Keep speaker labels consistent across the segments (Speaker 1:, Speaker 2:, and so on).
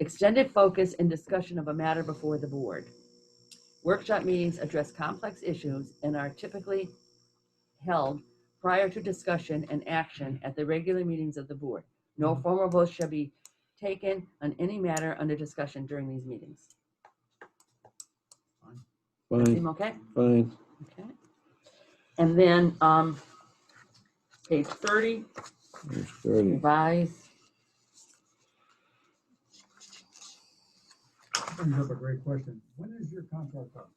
Speaker 1: Extended focus and discussion of a matter before the board. Workshop meetings address complex issues and are typically held prior to discussion and action at the regular meetings of the board. No formal vote shall be taken on any matter under discussion during these meetings.
Speaker 2: Fine, Mm-hmm.
Speaker 1: Seem okay?
Speaker 2: fine.
Speaker 1: Okay. And then, um, page thirty,
Speaker 2: There's 30.
Speaker 1: revised.
Speaker 3: brings up a great question. When is your contract up?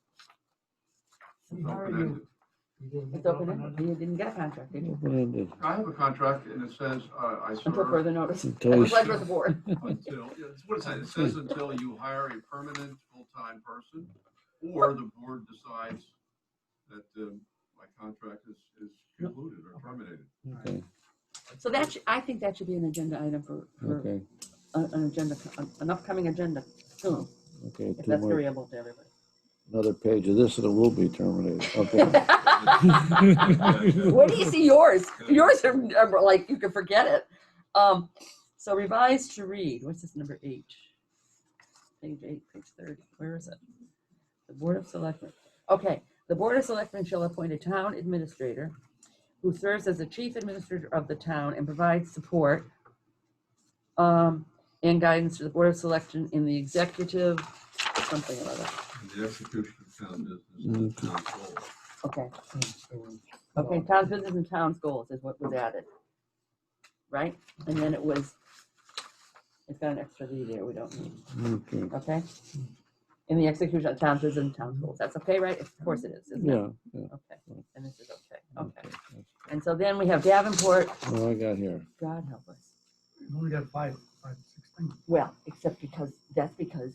Speaker 3: And how are you- you doing
Speaker 1: It's
Speaker 3: it
Speaker 1: open
Speaker 3: open-ended?
Speaker 1: You didn't get a contract, did you?
Speaker 2: Mm-hmm. Open-ended.
Speaker 4: I have a contract and it says, uh, I
Speaker 1: Until
Speaker 4: serve
Speaker 1: further notice.
Speaker 2: Until
Speaker 1: I'm
Speaker 2: you-
Speaker 1: glad you're the board.
Speaker 4: until, yeah, it's what it says, it says until you hire a permanent full-time person or the board decides that, um, my contract is, is concluded or terminated.
Speaker 2: Okay,
Speaker 1: So that, should- I think that should be an agenda item for, for
Speaker 2: okay,
Speaker 1: a- an agenda, an upcoming agenda soon,
Speaker 2: okay.
Speaker 1: if
Speaker 2: Two
Speaker 1: that's
Speaker 2: more,
Speaker 1: agreeable to everybody.
Speaker 2: another page of this and it will be terminated. Okay.
Speaker 1: Where do you see yours? Yours are, are like, you can forget it. Um, so revised to read, what's this number eight? Page eight, page thirty, where is it? The Board of Selectmen, okay, the Board of Selectmen shall appoint a town administrator who serves as the chief administrator of the town and provides support um, and guidance to the Board of Selection in the executive, something or other,
Speaker 4: The execution of town business and the town goal.
Speaker 1: okay.
Speaker 3: So uh, we're-
Speaker 1: Okay, town's business and town's goals is what was added. Right? And then it was, it's got an extra V there, we don't need,
Speaker 2: Okay.
Speaker 1: okay? In the execution of town's business and town's goals, that's okay, right? Of course it is, isn't it?
Speaker 2: Yeah, yeah.
Speaker 1: Okay, and this is okay, okay.
Speaker 2: that's-
Speaker 1: And so then we have Davenport,
Speaker 2: What do I got here?
Speaker 1: God help us.
Speaker 3: We've only got five, five, six things.
Speaker 1: Well, except because, that's because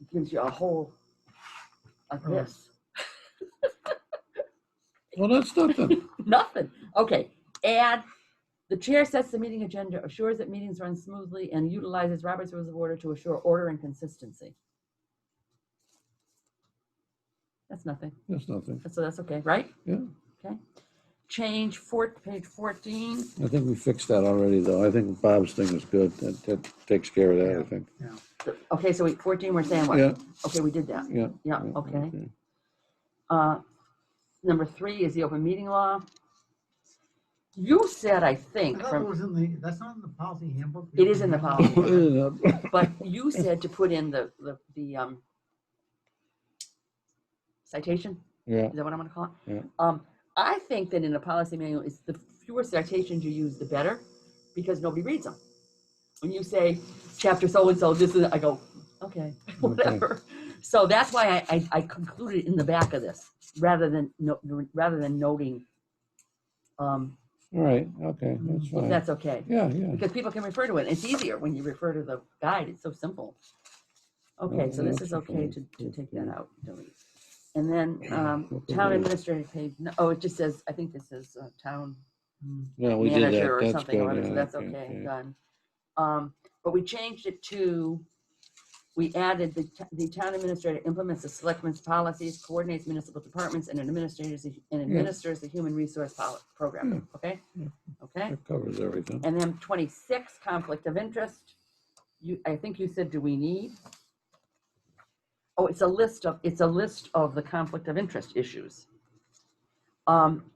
Speaker 1: it gives you a whole, of this,
Speaker 2: Well, that's nothing.
Speaker 1: nothing. Okay, add, the chair sets the meeting agenda, assures that meetings run smoothly, and utilizes Robert's Rules of Order to assure order and consistency. That's nothing.
Speaker 2: That's nothing.
Speaker 1: So that's okay, right?
Speaker 2: Yeah.
Speaker 1: Okay. Change four, page fourteen.
Speaker 2: I think we fixed that already though. I think Bob's thing is good. That, that takes care of that, I think.
Speaker 1: Okay, so wait, fourteen, we're saying
Speaker 2: Yeah,
Speaker 1: what? Okay, we did that.
Speaker 2: yeah.
Speaker 1: Yeah,
Speaker 2: yeah,
Speaker 1: okay. Uh Number three is the open meeting law. You said, I
Speaker 3: I
Speaker 1: think,
Speaker 3: thought that
Speaker 1: from,
Speaker 3: was in the, that's not in the policy handbook.
Speaker 1: It is in the policy.
Speaker 2: Yeah.
Speaker 1: but you said to put in the, the, the, um, citation?
Speaker 2: Yeah,
Speaker 1: Is that what I'm gonna call it?
Speaker 2: Yeah.
Speaker 1: Um, I think that in a policy manual, it's the fewer citations you use, the better, because nobody reads them. When you say, chapter so-and-so, this is, I go, okay, whatever. So that's why I, I, I concluded in the back of this, rather than, no, rather than noting, um,
Speaker 2: all right, okay, that's
Speaker 1: if
Speaker 2: fine.
Speaker 1: that's okay.
Speaker 2: Yeah, yeah.
Speaker 1: Because people can refer to it, it's easier when you refer to the guide, it's so simple. Okay, so this is okay to, to take that out, delete. And then, um, town administrator page, no- oh, it just says, I think this is uh, town
Speaker 3: Mm.
Speaker 2: Yeah, we did that.
Speaker 1: manager or
Speaker 2: That's
Speaker 1: something,
Speaker 2: good,
Speaker 1: or other,
Speaker 2: yeah,
Speaker 1: so that's okay,
Speaker 2: yeah.
Speaker 1: done. Um, but we changed it to, we added the, t- the town administrator implements the selectmen's policies, coordinates municipal departments, and administrators, the- and administers the human resource poli- program,
Speaker 2: Hmm.
Speaker 1: okay?
Speaker 2: Yeah.
Speaker 1: Okay?
Speaker 2: That covers everything.
Speaker 1: And then twenty-six, conflict of interest. You, I think you said, do we need? Oh, it's a list of, it's a list of the conflict of interest issues. Um,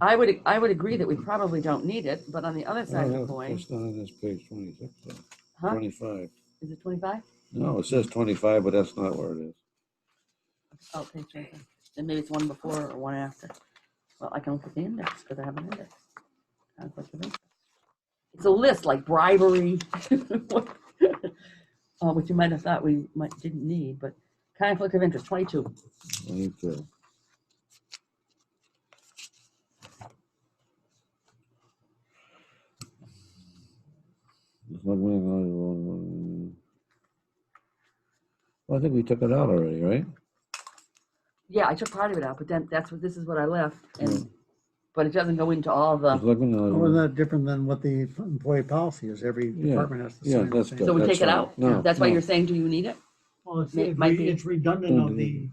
Speaker 1: I would, I would agree that we probably don't need it, but on the other
Speaker 2: I
Speaker 1: side
Speaker 2: don't
Speaker 1: of the
Speaker 2: know,
Speaker 1: coin,
Speaker 2: It's not on this page twenty-six, though.
Speaker 1: huh,
Speaker 2: twenty-five.
Speaker 1: is it twenty-five?
Speaker 2: No, it says twenty-five, but that's not where it is.
Speaker 1: Oh, page twenty-five. Then maybe it's one before or one after. Well, I can look at the index because I have an index. Conflict of interest. It's a list like bribery, uh, which you might have thought we might, didn't need, but conflict of interest, twenty-two.
Speaker 2: Twenty-two. It's not going on. Well, I think we took it out already, right?
Speaker 1: Yeah, I took part of it out, but then that's what, this is what I left
Speaker 2: Mm.
Speaker 1: and, but it doesn't go into all
Speaker 2: It's
Speaker 1: the,
Speaker 2: not going on.
Speaker 5: Wasn't that different than what the employee policy is? Every
Speaker 2: Yeah.
Speaker 5: department has to sign.
Speaker 2: Yeah,
Speaker 5: the
Speaker 2: that's
Speaker 5: same.
Speaker 2: good.
Speaker 1: so we take it
Speaker 2: right.
Speaker 1: out?
Speaker 2: No,
Speaker 1: That's why
Speaker 2: no.
Speaker 1: you're saying, do you need it?
Speaker 3: Well, it's,
Speaker 1: It might be-
Speaker 3: it's redundant of the,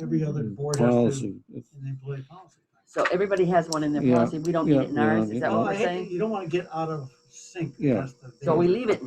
Speaker 3: every other board has to,
Speaker 2: Mm, Policy. It's-
Speaker 3: an employee policy.
Speaker 1: So everybody has one in their
Speaker 2: Yeah,
Speaker 1: policy. We don't need
Speaker 2: yeah, Oh,
Speaker 1: it in
Speaker 2: we don't
Speaker 1: ours.
Speaker 2: need
Speaker 1: Is
Speaker 2: it.
Speaker 1: that
Speaker 3: Well,
Speaker 1: what
Speaker 3: Oh, I
Speaker 1: we're
Speaker 3: hate,
Speaker 1: saying?
Speaker 3: you don't want to get out of sync.
Speaker 2: Yeah.
Speaker 3: That's the
Speaker 1: So we
Speaker 3: danger.
Speaker 1: leave it in